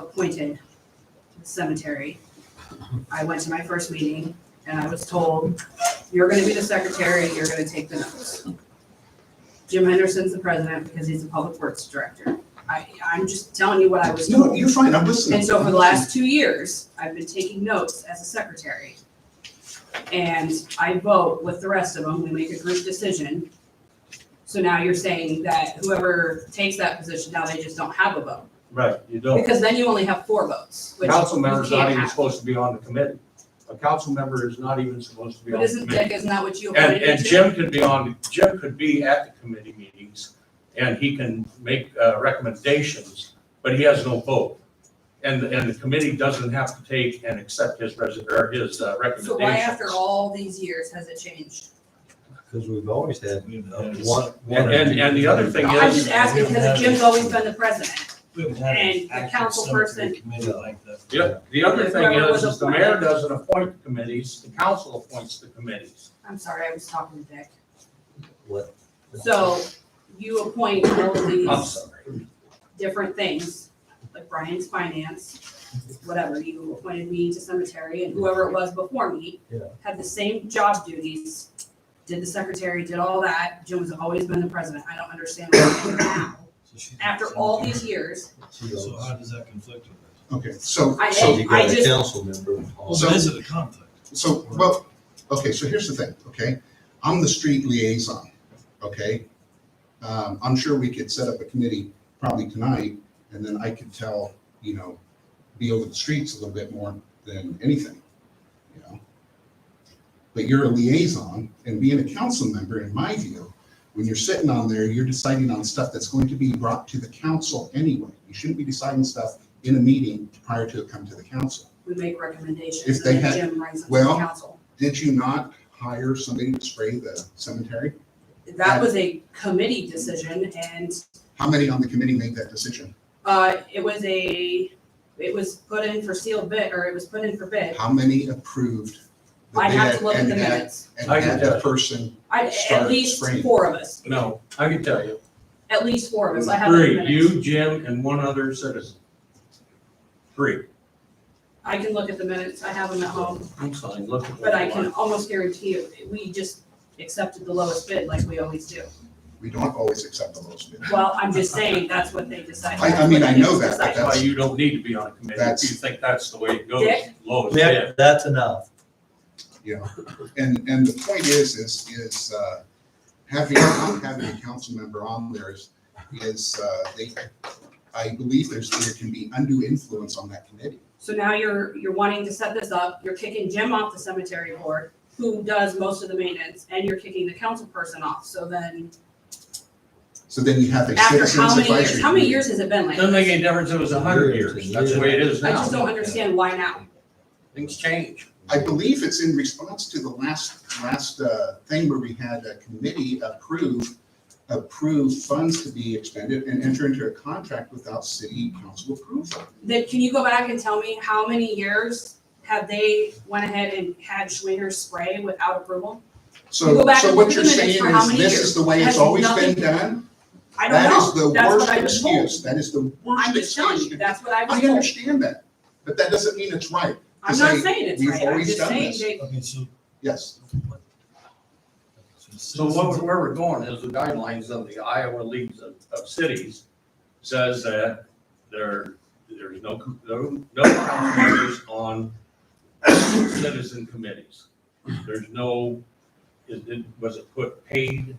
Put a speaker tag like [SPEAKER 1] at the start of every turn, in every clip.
[SPEAKER 1] appointed to the cemetery. I went to my first meeting and I was told, you're gonna be the secretary, you're gonna take the notes. Jim Henderson's the president because he's the public works director. I, I'm just telling you what I was
[SPEAKER 2] No,
[SPEAKER 1] told.
[SPEAKER 2] you're fine, I'm listening.
[SPEAKER 1] And so for the last two years, I've been taking notes as a secretary. And I vote with the rest of them, we make a group decision. So now you're saying that whoever takes that position, now they just don't have a vote.
[SPEAKER 3] Right, you don't.
[SPEAKER 1] Because then you only have four votes, which
[SPEAKER 3] Council
[SPEAKER 1] you
[SPEAKER 3] member's not
[SPEAKER 1] can't
[SPEAKER 3] even
[SPEAKER 1] have.
[SPEAKER 3] supposed to be on the committee. A council member is not even supposed to be
[SPEAKER 1] But
[SPEAKER 3] on the
[SPEAKER 1] isn't
[SPEAKER 3] committee.
[SPEAKER 1] Dick, isn't that what you
[SPEAKER 3] And,
[SPEAKER 1] appointed him
[SPEAKER 3] and
[SPEAKER 1] to?
[SPEAKER 3] Jim could be on, Jim could be at the committee meetings and he can make, uh, recommendations, but he has no vote. And, and the committee doesn't have to take and accept his resi, or his uh, recommendations.
[SPEAKER 1] So why after all these years has it changed?
[SPEAKER 4] Because we've always had
[SPEAKER 5] And-
[SPEAKER 4] one.
[SPEAKER 3] And, and, and the other thing
[SPEAKER 1] No,
[SPEAKER 3] is.
[SPEAKER 1] I'm just asking because
[SPEAKER 5] Yes.
[SPEAKER 1] Jim's always been the president.
[SPEAKER 5] We haven't had an
[SPEAKER 1] And the
[SPEAKER 5] active
[SPEAKER 1] council
[SPEAKER 5] cemetery Committee like that.
[SPEAKER 3] Yeah, the other thing
[SPEAKER 1] Whoever
[SPEAKER 3] is,
[SPEAKER 1] was
[SPEAKER 3] is the mayor
[SPEAKER 1] appointed.
[SPEAKER 3] doesn't appoint committees, the council appoints the committees.
[SPEAKER 1] I'm sorry, I was talking to Dick.
[SPEAKER 4] What?
[SPEAKER 1] So you appoint all of these.
[SPEAKER 3] I'm sorry.
[SPEAKER 1] different things, like Brian's finance, whatever, you appointed me to cemetery and whoever it was before me
[SPEAKER 4] Yeah.
[SPEAKER 1] had the same job duties, did the secretary, did all that, Jim has always been the president, I don't understand why now,
[SPEAKER 5] So she-
[SPEAKER 1] after all these years,
[SPEAKER 4] She goes,
[SPEAKER 3] uh,
[SPEAKER 5] So how does that conflict with it?
[SPEAKER 2] Okay, so,
[SPEAKER 1] I-
[SPEAKER 2] so,
[SPEAKER 4] You got
[SPEAKER 1] I
[SPEAKER 4] a
[SPEAKER 1] just-
[SPEAKER 4] council member.
[SPEAKER 5] Well, there is a conflict.
[SPEAKER 2] so, well, okay, so here's the thing, okay? I'm the street liaison, okay? Um, I'm sure we could set up a committee probably tonight, and then I could tell, you know, be over the streets a little bit more than anything, you know? But you're a liaison, and being a council member, in my view, when you're sitting on there, you're deciding on stuff that's going to be brought to the council anyway. You shouldn't be deciding stuff in a meeting prior to it come to the council.
[SPEAKER 1] we make recommendations
[SPEAKER 2] If they
[SPEAKER 1] and then
[SPEAKER 2] had-
[SPEAKER 1] Jim brings them to the
[SPEAKER 2] well-
[SPEAKER 1] council.
[SPEAKER 2] Did you not hire somebody to spray the cemetery?
[SPEAKER 1] That was a committee decision and,
[SPEAKER 2] How many on the committee made that decision?
[SPEAKER 1] uh, it was a, it was put in for sealed bid, or it was put in for bid.
[SPEAKER 2] How many approved? the
[SPEAKER 1] I have
[SPEAKER 2] bid
[SPEAKER 1] to look at
[SPEAKER 2] and
[SPEAKER 1] the
[SPEAKER 2] had-
[SPEAKER 1] minutes,
[SPEAKER 2] And
[SPEAKER 3] I can
[SPEAKER 2] had the
[SPEAKER 3] judge.
[SPEAKER 2] person,
[SPEAKER 1] I, at
[SPEAKER 2] start
[SPEAKER 1] least
[SPEAKER 2] spring.
[SPEAKER 1] four of us,
[SPEAKER 3] No, I can tell you.
[SPEAKER 1] at least four of us, I have the
[SPEAKER 3] Three,
[SPEAKER 1] minutes.
[SPEAKER 3] you, Jim, and one other citizen. Three,
[SPEAKER 1] I can look at the minutes, I have them at home,
[SPEAKER 3] I'm sorry, look at
[SPEAKER 1] but I
[SPEAKER 3] that
[SPEAKER 1] can
[SPEAKER 3] one.
[SPEAKER 1] almost guarantee you, we just accepted the lowest bid like we always do.
[SPEAKER 2] we don't always accept the lowest bid.
[SPEAKER 1] Well, I'm just saying, that's what they decided.
[SPEAKER 2] I- I mean, I know that,
[SPEAKER 1] That's
[SPEAKER 2] but
[SPEAKER 3] That's
[SPEAKER 1] what
[SPEAKER 3] why you don't need to be on a committee if you
[SPEAKER 2] That's-
[SPEAKER 3] think that's the way it goes,
[SPEAKER 1] Dick?
[SPEAKER 3] lowest bid.
[SPEAKER 4] Yeah, that's enough.
[SPEAKER 2] And, and the point is, is, is, uh, having, not having a council member on there is, is, uh, they, I believe there's, there can be undue influence on that committee.
[SPEAKER 1] So now you're, you're wanting to set this up, you're kicking Jim off the cemetery board, who does most of the maintenance, and you're kicking the council person off, so then,
[SPEAKER 2] So then you have a
[SPEAKER 1] after
[SPEAKER 2] citizens
[SPEAKER 1] how
[SPEAKER 2] advisory.
[SPEAKER 1] many years, how many
[SPEAKER 2] committee.
[SPEAKER 1] years has it been like?
[SPEAKER 3] Doesn't make any difference, if it was a hundred
[SPEAKER 4] Years and
[SPEAKER 3] years, that's the way it is
[SPEAKER 1] I
[SPEAKER 3] now.
[SPEAKER 1] just don't understand why now.
[SPEAKER 3] Things change.
[SPEAKER 2] I believe it's in response to the last, last uh, thing where we had a committee approve, approve funds to be expended and enter into a contract without city council approval.
[SPEAKER 1] Then can you go back and tell me how many years have they went ahead and had Schwinger spray without approval? You go
[SPEAKER 2] So,
[SPEAKER 1] back
[SPEAKER 2] so
[SPEAKER 1] and
[SPEAKER 2] what
[SPEAKER 1] look at
[SPEAKER 2] you're
[SPEAKER 1] the minutes
[SPEAKER 2] saying
[SPEAKER 1] for how
[SPEAKER 2] is
[SPEAKER 1] many
[SPEAKER 2] this
[SPEAKER 1] years.
[SPEAKER 2] is the way
[SPEAKER 1] Has
[SPEAKER 2] it's always been
[SPEAKER 1] nothing-
[SPEAKER 2] done?
[SPEAKER 1] I don't
[SPEAKER 2] That is the
[SPEAKER 1] know. That's what
[SPEAKER 2] worst
[SPEAKER 1] I was told.
[SPEAKER 2] excuse. That is the
[SPEAKER 1] I'm
[SPEAKER 2] worst
[SPEAKER 1] just telling you,
[SPEAKER 2] excuse.
[SPEAKER 1] that's what I
[SPEAKER 2] I
[SPEAKER 1] was told.
[SPEAKER 2] understand that, but that doesn't mean it's right.
[SPEAKER 1] I'm not
[SPEAKER 2] say,
[SPEAKER 1] saying it's
[SPEAKER 2] "We've
[SPEAKER 1] right, I'm
[SPEAKER 2] always
[SPEAKER 1] just
[SPEAKER 2] done
[SPEAKER 1] saying
[SPEAKER 2] this."
[SPEAKER 1] they,
[SPEAKER 5] Okay, so.
[SPEAKER 2] Yes,
[SPEAKER 3] So what, we're- where we're going is the guidelines of the Iowa Leagues of, of Cities says that there, there's no, com- no, no council members on citizen committees. There's no, is, it- was it put paid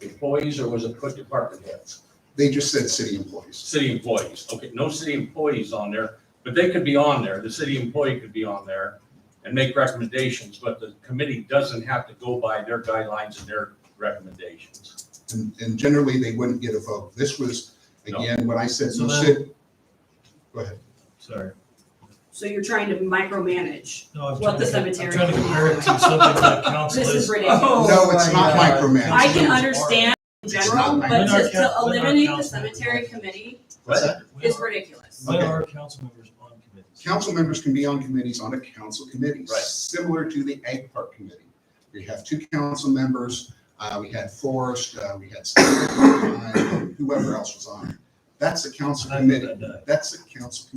[SPEAKER 3] employees or was it put department heads?
[SPEAKER 2] they just said city employees.
[SPEAKER 3] City employees, okay, no city employees on there, but they could be on there, the city employee could be on there and make recommendations, but the committee doesn't have to go by their guidelines and their recommendations.
[SPEAKER 2] And, and generally, they wouldn't get a vote. This was,
[SPEAKER 3] No.
[SPEAKER 2] again, what I said,
[SPEAKER 5] So
[SPEAKER 2] no
[SPEAKER 5] then-
[SPEAKER 2] city. Go ahead.
[SPEAKER 5] Sorry.
[SPEAKER 1] so you're trying to micromanage.
[SPEAKER 5] No, I'm
[SPEAKER 1] What
[SPEAKER 5] trying
[SPEAKER 1] the
[SPEAKER 5] to, I'm
[SPEAKER 1] cemetery-
[SPEAKER 5] trying to compare it to something that council
[SPEAKER 1] This
[SPEAKER 5] is. Oh.
[SPEAKER 1] is ridiculous.
[SPEAKER 2] No, it's not micromanaging.
[SPEAKER 1] I can
[SPEAKER 5] It's
[SPEAKER 1] understand in
[SPEAKER 2] It's
[SPEAKER 1] general,
[SPEAKER 2] not
[SPEAKER 1] but to,
[SPEAKER 2] micromanaging.
[SPEAKER 5] When our
[SPEAKER 1] to
[SPEAKER 5] coun- when our
[SPEAKER 1] eliminate the
[SPEAKER 5] council-
[SPEAKER 1] cemetery committee
[SPEAKER 2] What's that?
[SPEAKER 5] When
[SPEAKER 1] is
[SPEAKER 5] are-
[SPEAKER 1] ridiculous.
[SPEAKER 5] When
[SPEAKER 2] Okay.
[SPEAKER 5] are council members on committees?
[SPEAKER 2] Council members can be on committees on a council committee,
[SPEAKER 3] Right.
[SPEAKER 2] similar to the Ag Park Committee. We have two council members, uh, we had Forrest, uh, we had Steve, uh, whoever else was on. it. That's a council
[SPEAKER 5] I think
[SPEAKER 2] committee,
[SPEAKER 5] that does.
[SPEAKER 2] that's a council committee.